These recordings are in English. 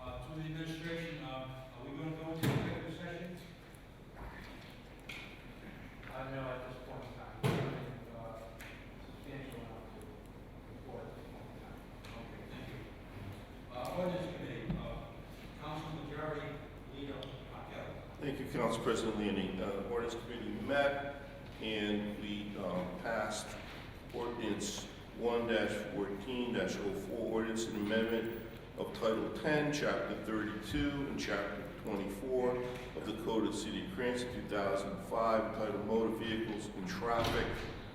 Uh, Uh, Council President Leonie, uh, ordinance committee met and we, um, passed ordinance one fourteen 4 ordinance and amendment of Title ten, Chapter thirty-two and Chapter twenty-four of the Code of the City of Cranston, two thousand and five, entitled Motor Vehicles and Traffic,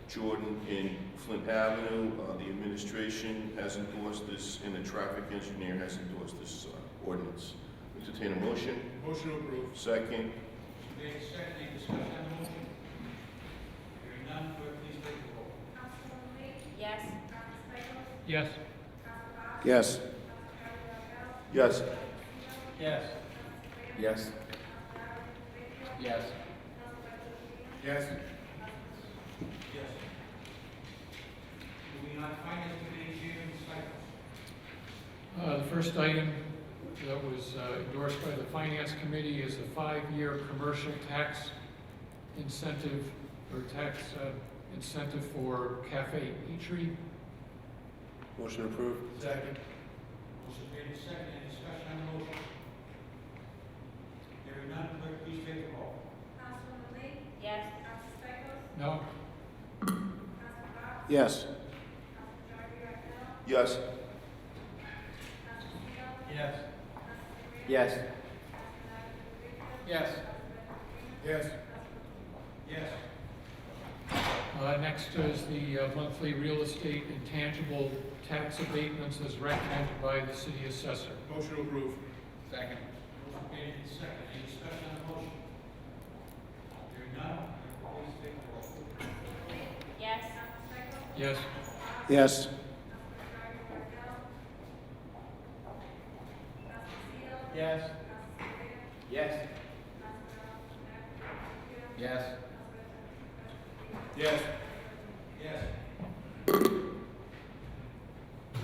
Jordan and Flint Avenue. Uh, the administration has endorsed this and the traffic engineer has endorsed this, uh, ordinance. Entertain a motion? Motion approved. Second, Made second, any discussion on the motion? Hearing none, clerk, please take the roll. Yes. Yes. Yes. yes. Yes. Yes. Yes. Yes. Yes. Moving on, finance committee chairman Stichels. uh, The first item that was uh, endorsed by the Finance Committee is a five-year commercial tax incentive, or tax uh, incentive for Cafe Eatery. Motion approved. Second. Motion made second, any discussion on the motion? Hearing none, clerk, please take the roll. Yes. No? Yes. Yes. Yes. Yes. Yes. Yes. Yes. Uh, Next is the uh, monthly real estate intangible tax abatements as recommended by the city assessor. Motion approved. Second. Motion made second, any discussion on the motion? Hearing none, clerk, please take the roll. Yes. Yes? Yes. Yes. Yes. Yes. Yes. Yes.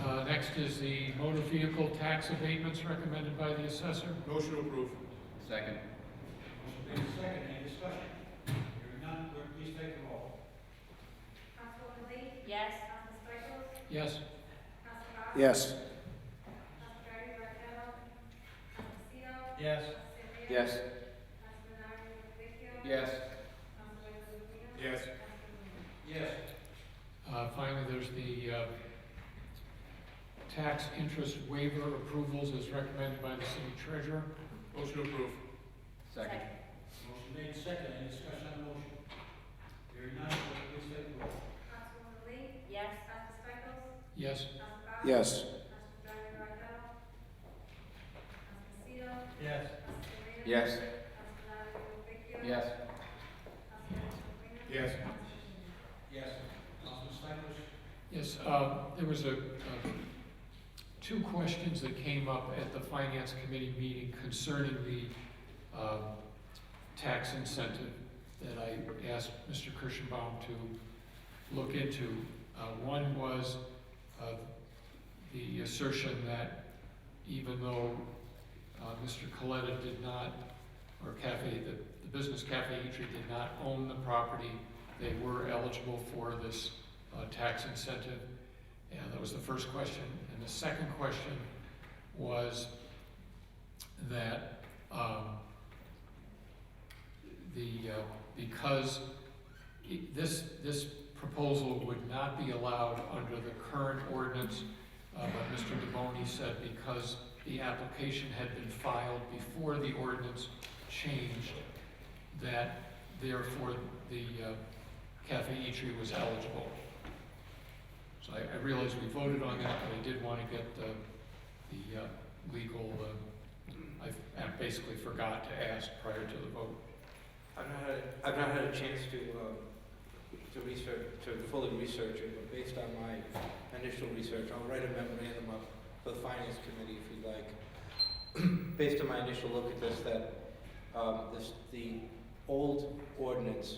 Uh, Next is the motor vehicle tax abatements recommended by the assessor. Motion approved. Second. Motion made second, any discussion? Hearing none, clerk, please take the roll. Yes. Yes? Yes. Yes. Yes. Yes. Yes. Yes. Uh, Finally, there's the uh, tax interest waiver approvals as recommended by the city treasurer. Motion approved. Second. Motion made second, any discussion on the motion? Hearing none, clerk, please take the roll. Yes. Yes? Yes. Yes. Yes. Yes. Yes. Yes. Councilman Stichels? Yes, uh, there was a, uh, two questions that came up at the finance committee meeting concerning the uh, tax incentive that I asked Mr. Kirschenbaum to look into. Uh, One was uh, the assertion that even though uh, Mr. Coletta did not, or Cafe, the the business Cafe Eatery did not own the property, they were eligible for this uh, tax incentive? And that was the first question. And the second question was that um, the, uh, because it- this, this proposal would not be allowed under the current ordinance, uh, but Mr. DeBoni said because the application had been filed before the ordinance changed, that therefore the uh, Cafe Eatery was eligible. So I, I realize we voted on that, but I did want to get the, the uh, legal, uh, I, I basically forgot to ask prior to the vote. I've not had, I've not had a chance to, um, to research, to fully research it, but based on my initial research, I'll write a memorandum up for the finance committee if you'd like. Based on my initial look at this, that, um, this, the old ordinance,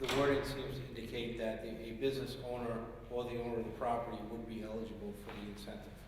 the wording seems to indicate that the- a business owner or the owner of the property would be eligible for the incentive.